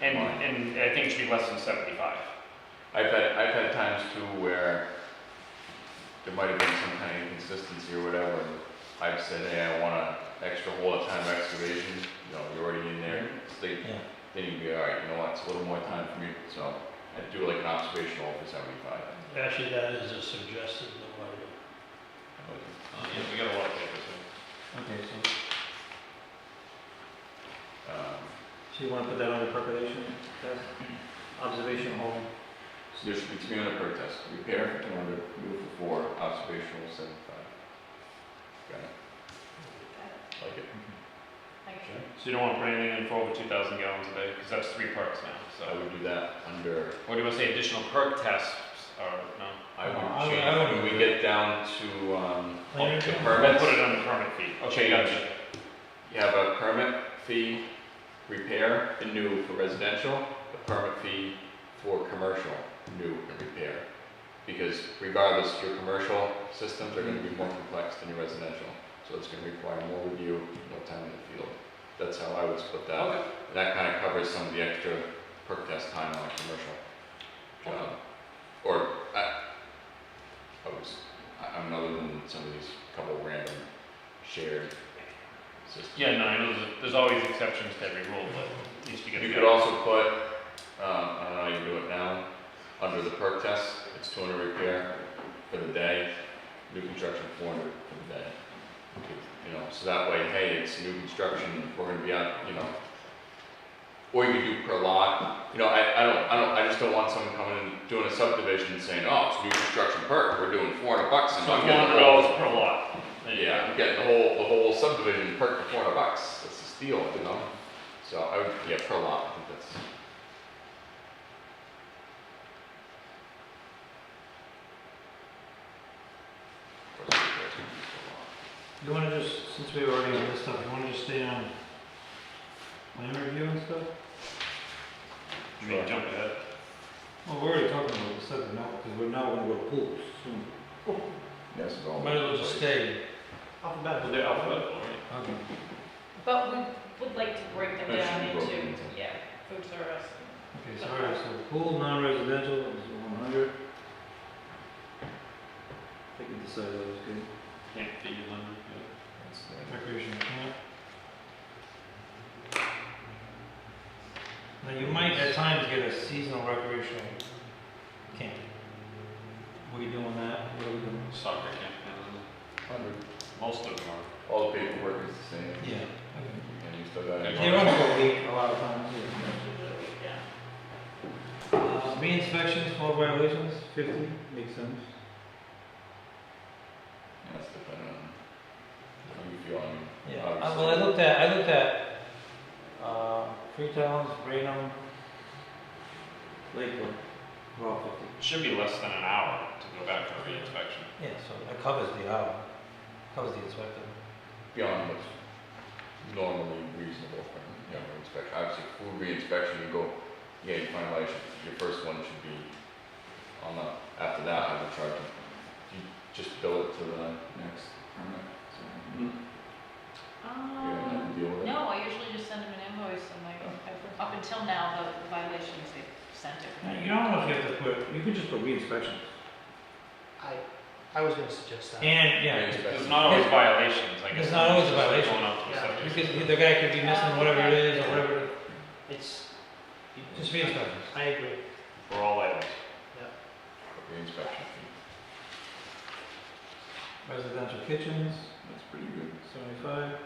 And, and I think it should be less than seventy-five. I've had, I've had times too where there might have been some kind of inconsistency or whatever, and I've said, hey, I want an extra hole of time of excavation, you know, you're already in there, Mm-hmm. state, Yeah. then you'd be, all right, you know what, it's a little more time for me, so I'd do like an observational for seventy-five. Actually, that is a suggested number. Yeah, we got a lot of papers Okay, so, Um, so you wanna put that on the preparation test? Observation hole, So there should be three hundred per test, repair in order, move for four, observational seventy-five. Got it? Like it? So you don't wanna put anything in for over two thousand gallons a day, because that's three parts now, So I so. would do that under What do you wanna say, additional perk tests, or, no? I No, Uh, I would- would change, I would when we do get down to, um, Later. the We'll permits, put it on the permit fee. Okay, gotcha. you have a permit fee, repair, and new for residential, a permit fee for commercial, new and repair. Because regardless, your commercial systems are gonna be more complex than your residential, so it's gonna require more review, more time in the field. That's how I would split that. Okay. And That kinda covers some of the extra perk test time on a commercial job. Or, I, I was, I- I'm other than some of these couple random shared systems. Yeah, no, I know there's, there's always exceptions to every rule, but at least you get. You the- could also put, um, I don't know, how you do it now, under the perk test, it's two hundred repair for the day, new construction four hundred for the day. You could- You know, so that way, hey, it's new construction, we're gonna be out, you know. Or you could do per lot, you know, I, I don't, I don't, I just don't want someone coming and doing a subdivision and saying, oh, it's new construction perk, we're doing four hundred bucks and So I'm four getting the hundred whole- dollars per lot. There you yeah, go. I'm getting the whole, the whole subdivision perked for four hundred bucks, that's a steal, you know? So I would, yeah, per lot, I think that's. Of course, there's gonna be per lot. You wanna just, since we were already on this stuff, you wanna just stay on plan review and stuff? You mean jump ahead? Well, we're already talking about this stuff now, because we're now gonna go to pools soon. Yes, it's all. Oh, Might as well just stay. Alphabetical. there. Alphabetical, right? Okay. But we would like to break them That should down be into, broken into. yeah, food service. Okay, so, all right, so pool, non-residential, is one hundred. I think we decided that was good. Can't fit you in. That's the- Recreation camp. Now, you might at times get a seasonal recreational camp. We doing that, what are we doing? Soccer camp, and most of them are. All the paperwork is the same, Yeah. and you still got. They run for a week, a lot of times, yeah. Uh, Bee inspections, four violations, fifty, Makes sense. That's dependent on how you feel, I mean, yeah, Uh, obviously. well, I looked at, I looked at, uh, Freetown's, Raynham, Lakewood, we're all fifty. Should be less than an hour to go back for a reinspection. yeah, so it covers the hour, covers the inspector. beyond what's normally reasonable for a younger inspection. Obviously, food reinspection, you go, yeah, you find violation, your first one should be on the, after that, I would charge them. You just bill it to the next permit, so you don't Um, have to deal with it. no, I usually just send them an invoice and like, I've- up until now, the violations they sent Now, it. You don't know if you have to put, You could just put reinspection. I, I was gonna suggest that. and, yeah, Reinspection. There's not always violations, I guess. There's not always a It's just violation. Going up to Yeah. subject. Because the guy could be missing whatever it is or whatever, It's, just be inspectors. I agree. For all items. Reinspection fee, Residential kitchens, that's pretty good. seventy-five,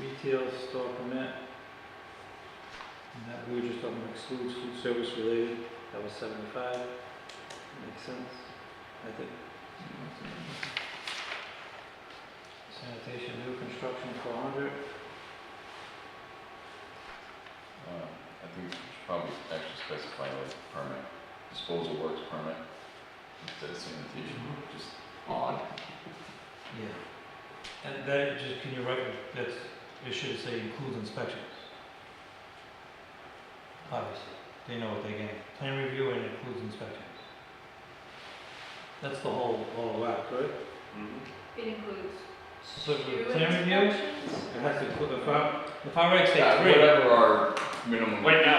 retail store permit. And that, we were just talking about excludes food service related, that was seventy-five, Makes sense, I think. Uh, sanitation, new construction, four hundred. Um, I think we should probably actually specify like permit, disposal works permit, instead of sanitation, just odd. Yeah. And that, just, can you write, that's, it should say includes inspections. Obviously, they know what they get, plan review and includes inspections. That's the whole, whole whack, right? It includes So, two plan review? inspections. It has to, include- if I, if I write say Yeah, three. Whatever our minimum. Right now,